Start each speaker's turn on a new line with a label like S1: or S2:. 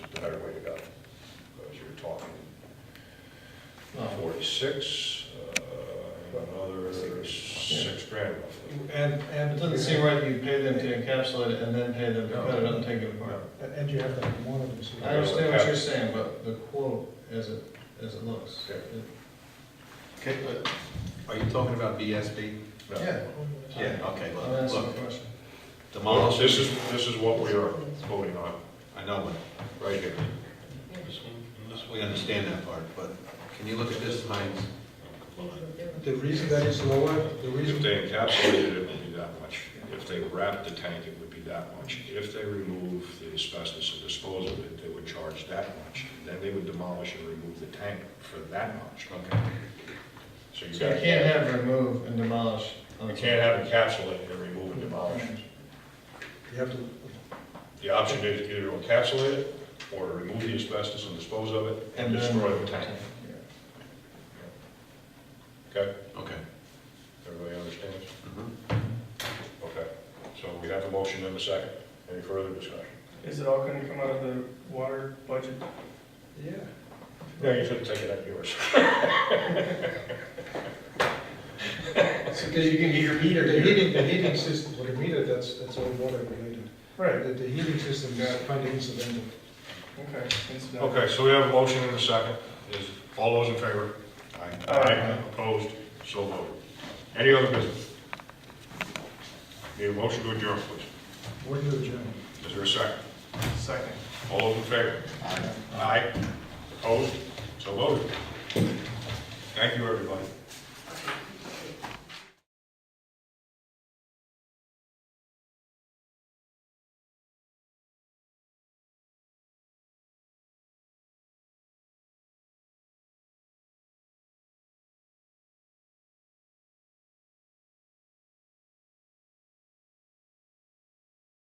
S1: six, uh, another six grand roughly.
S2: And, and it doesn't seem right that you pay them to encapsulate it and then pay them to cut it up and take it apart.
S3: And and you have to have one of them. so you-
S2: I understand what you're saying, but the quote as it, as it looks.
S1: Okay.
S4: Okay, but are you talking about BSB?
S1: No.
S2: Yeah,
S4: Yeah, okay,
S2: I'll
S4: look,
S2: answer the
S4: look,
S2: question.
S1: Well,
S4: demolish,
S1: this is, this is what we are voting on,
S4: I know, what-
S1: right here.
S4: we understand that part, but can you look at this, Heinz?
S3: The reason that is lower, the
S1: If
S3: reason,
S1: they encapsulated it, it would be that much. If they wrapped the tank, it would be that much. If they remove the asbestos and dispose of it, they would charge that much. Then they would demolish and remove the tank for that much.
S4: Okay.
S1: So you
S2: So you
S1: got,
S2: can't have remove and demolish. on
S1: you
S2: the-
S1: can't have encapsulated and remove and demolish.
S3: you have to,
S1: The option is either to encapsulate it or to remove the asbestos and dispose of it and
S2: then-
S1: destroy the tank.
S2: Yeah.
S1: Okay?
S4: Okay.
S1: Everybody understands?
S4: Mhm.
S1: Okay. So we have a motion and a second. Any further discussion?
S5: Is it all gonna come out of the water budget?
S3: yeah.
S1: No, you shouldn't take it up yours.
S3: Because you can get your heater. The heating, the heating system, well, the meter, that's, that's all water related.
S5: Right,
S3: The, the heating system is kind of incidental.
S5: okay, incidental.
S1: Okay, so we have a motion and a second. Is, all those in favor?
S4: Aye.
S5: Aye.
S1: Opposed? So voted. Any other business? Need a motion to adjourn, please.
S3: What do you, John?
S1: Is there a second?
S5: Second.
S1: All those in favor? Aye. Opposed? So voted. Thank you, everybody.